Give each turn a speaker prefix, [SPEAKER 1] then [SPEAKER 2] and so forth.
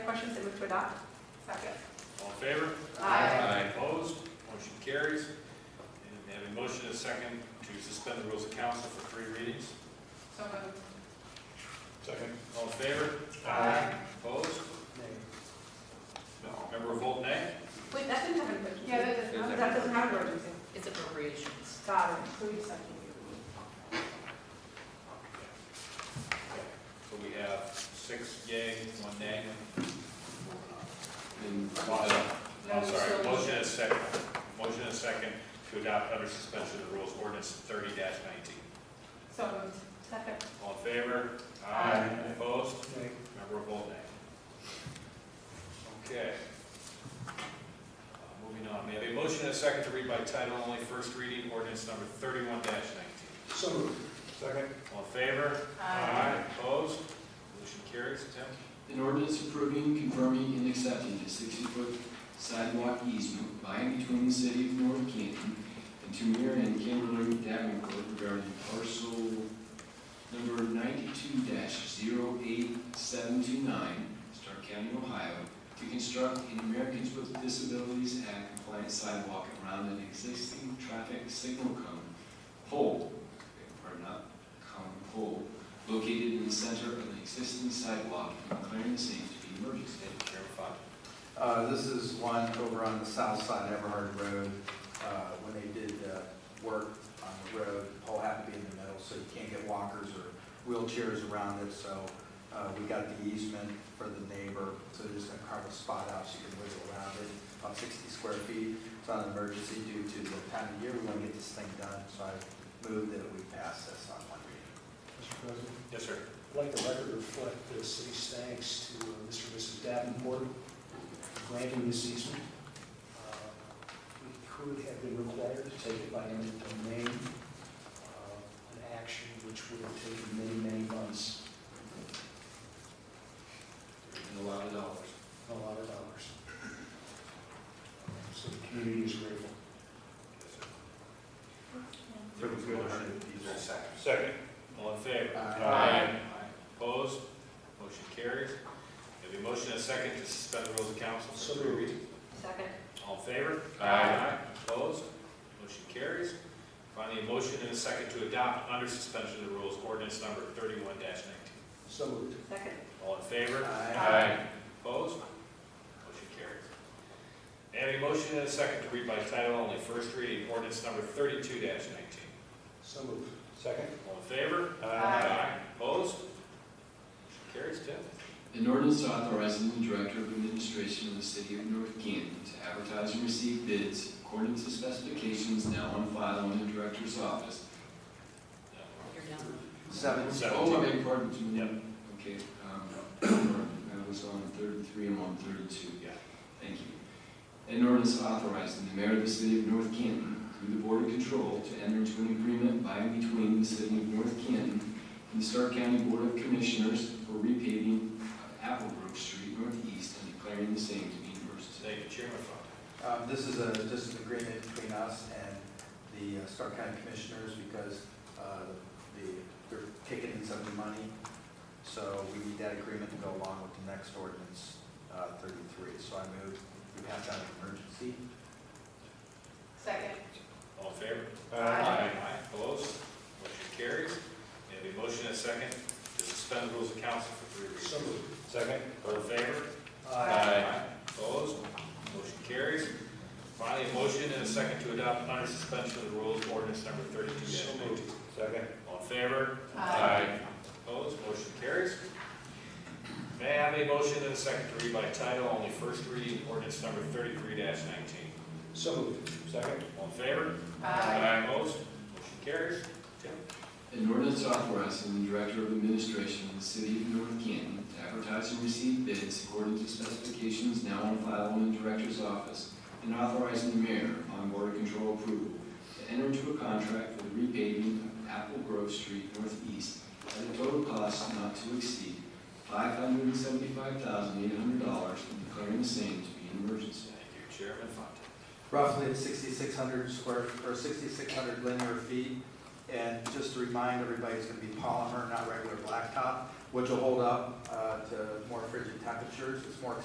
[SPEAKER 1] motion, so move to adopt. Second.
[SPEAKER 2] All in favor?
[SPEAKER 1] Aye.
[SPEAKER 2] Opposed? Motion carries. And we have a motion and a second to suspend the rules of council for three readings.
[SPEAKER 1] So moved.
[SPEAKER 2] Second. All in favor?
[SPEAKER 1] Aye.
[SPEAKER 2] Opposed? No. Member of Volt, nay?
[SPEAKER 1] Wait, that didn't have an emergency.
[SPEAKER 3] Yeah, that doesn't have-
[SPEAKER 1] That doesn't have an emergency.
[SPEAKER 3] It's appropriations.
[SPEAKER 1] Got it, so we just have to.
[SPEAKER 2] So we have six yay, one nay. Uh,
[SPEAKER 4] And
[SPEAKER 1] No,
[SPEAKER 2] I'm
[SPEAKER 1] we
[SPEAKER 2] sorry,
[SPEAKER 1] still-
[SPEAKER 2] motion and a second, motion and a second to adopt under suspension of the rules ordinance thirty nineteen.
[SPEAKER 1] So moved. Second.
[SPEAKER 2] All in favor?
[SPEAKER 1] Aye.
[SPEAKER 2] Opposed? Member of Volt, nay. Okay. Uh, Moving on, may I have a motion and a second to read by title only, first reading, ordinance number thirty-one nineteen.
[SPEAKER 4] So Second.
[SPEAKER 2] All in favor?
[SPEAKER 1] Aye.
[SPEAKER 2] Opposed? Motion carries, Tim?
[SPEAKER 5] An ordinance approving, confirming, and accepting a sixty-foot sidewalk easement by and between the city of North Canton and Tamir and Kimberly Davenport regarding parcel number ninety-two 8729 Stark County, Ohio, to construct an Americans with Disabilities Act compliant sidewalk around an existing traffic signal cone pole, pardon, not cone, pole, located in the center of an existing sidewalk and declaring the same to be emergency.
[SPEAKER 2] Chairman Fox?
[SPEAKER 4] Uh, this is one over on the south side of Everhard Road. Uh, when they did, uh, work on the road, the pole had to be in the middle, so you can't get walkers or wheelchairs around it, so, uh, we got the easement for the neighbor, so they're just gonna carve a spot out so you can wiggle around it, about sixty square feet. It's not an emergency due to the time of year, we wanna get this thing done, so I move that we pass this on one reading.
[SPEAKER 6] Mr. President,
[SPEAKER 2] Yes, sir.
[SPEAKER 6] I'd like the record to reflect the city's thanks to uh, Mr. and Mrs. Davenport for granting this easement. Uh, We could have been required to take it by eminent domain, uh, an action which would have taken many, many months
[SPEAKER 5] And a lot of dollars.
[SPEAKER 6] and a lot of dollars. So the community is grateful.
[SPEAKER 4] For the good of the people.
[SPEAKER 2] Second. All in favor?
[SPEAKER 4] Aye.
[SPEAKER 2] Opposed? Motion carries. May I have a motion and a second to suspend the rules of council
[SPEAKER 6] So
[SPEAKER 2] for three
[SPEAKER 6] moved.
[SPEAKER 2] readings?
[SPEAKER 1] Second.
[SPEAKER 2] All in favor?
[SPEAKER 3] Aye.
[SPEAKER 2] Opposed? Motion carries. Finally, a motion and a second to adopt under suspension of the rules ordinance number thirty-one nineteen.
[SPEAKER 6] So moved.
[SPEAKER 1] Second.
[SPEAKER 2] All in favor?
[SPEAKER 4] Aye.
[SPEAKER 2] Opposed? Motion carries. May I have a motion and a second to read by title only, first reading, ordinance number thirty-two nineteen.
[SPEAKER 6] So moved.
[SPEAKER 4] Second.
[SPEAKER 2] All in favor?
[SPEAKER 1] Aye.
[SPEAKER 2] Opposed? Motion carries, Tim.
[SPEAKER 5] An ordinance authorizing the Director of Administration of the City of North Canton to advertise and receive bids according to specifications now on file in the Director's office.
[SPEAKER 3] You're down.
[SPEAKER 4] Seven.
[SPEAKER 5] Oh, I beg your pardon, Jim.
[SPEAKER 2] Yep.
[SPEAKER 5] Okay, um, I was on thirty-three, I'm on thirty-two.
[SPEAKER 2] Yeah.
[SPEAKER 5] Thank you. An ordinance authorizing the mayor of the city of North Canton through the Board of Control to enter into an agreement by and between the city of North Canton and the Stark County Board of Commissioners for repaving of Applebrook Street Northeast and declaring the same to be an emergency.
[SPEAKER 2] Thank you, Chairman Fox.
[SPEAKER 4] Um, This is a, just an agreement between us and the uh, Stark County Commissioners because uh, the, they're kicking in some of the money. So we need that agreement to go along with the next ordinance, uh, 33. So I move, we pass out an emergency.
[SPEAKER 1] Second.
[SPEAKER 2] All in favor?
[SPEAKER 1] Aye.
[SPEAKER 2] Opposed? Motion carries. May I have a motion and a second to suspend the rules of council for three readings?
[SPEAKER 6] So moved.
[SPEAKER 2] Second. All in favor? Opposed? Motion carries. Finally, a motion and a second to adopt under suspension of the rules ordinance number thirty-two
[SPEAKER 6] So moved.
[SPEAKER 2] nineteen. Second. All in favor?
[SPEAKER 1] Aye.
[SPEAKER 2] Opposed, motion carries. May I have a motion and a second to read by title only, first reading, ordinance number thirty-three nineteen.
[SPEAKER 6] So moved.
[SPEAKER 2] Second. All in favor? Opposed, motion carries. Tim?
[SPEAKER 5] An ordinance authorizing the Director of Administration of the City of North Canton to advertise and receive bids according to specifications now on file in the Director's office, and authorizing the mayor upon Board of Control approval to enter into a contract for the repaving of Apple Grove Street Northeast at a total cost not to exceed five hundred and seventy-five thousand eight hundred dollars and declaring the same to be an emergency.
[SPEAKER 2] Thank you, Chairman Fontaine.
[SPEAKER 4] Roughly it's 6,600 square, or 6,600 linear feet. And just to remind everybody, it's going to be polymer, not regular blacktop, which will hold up uh, to more frigid temperatures. It's more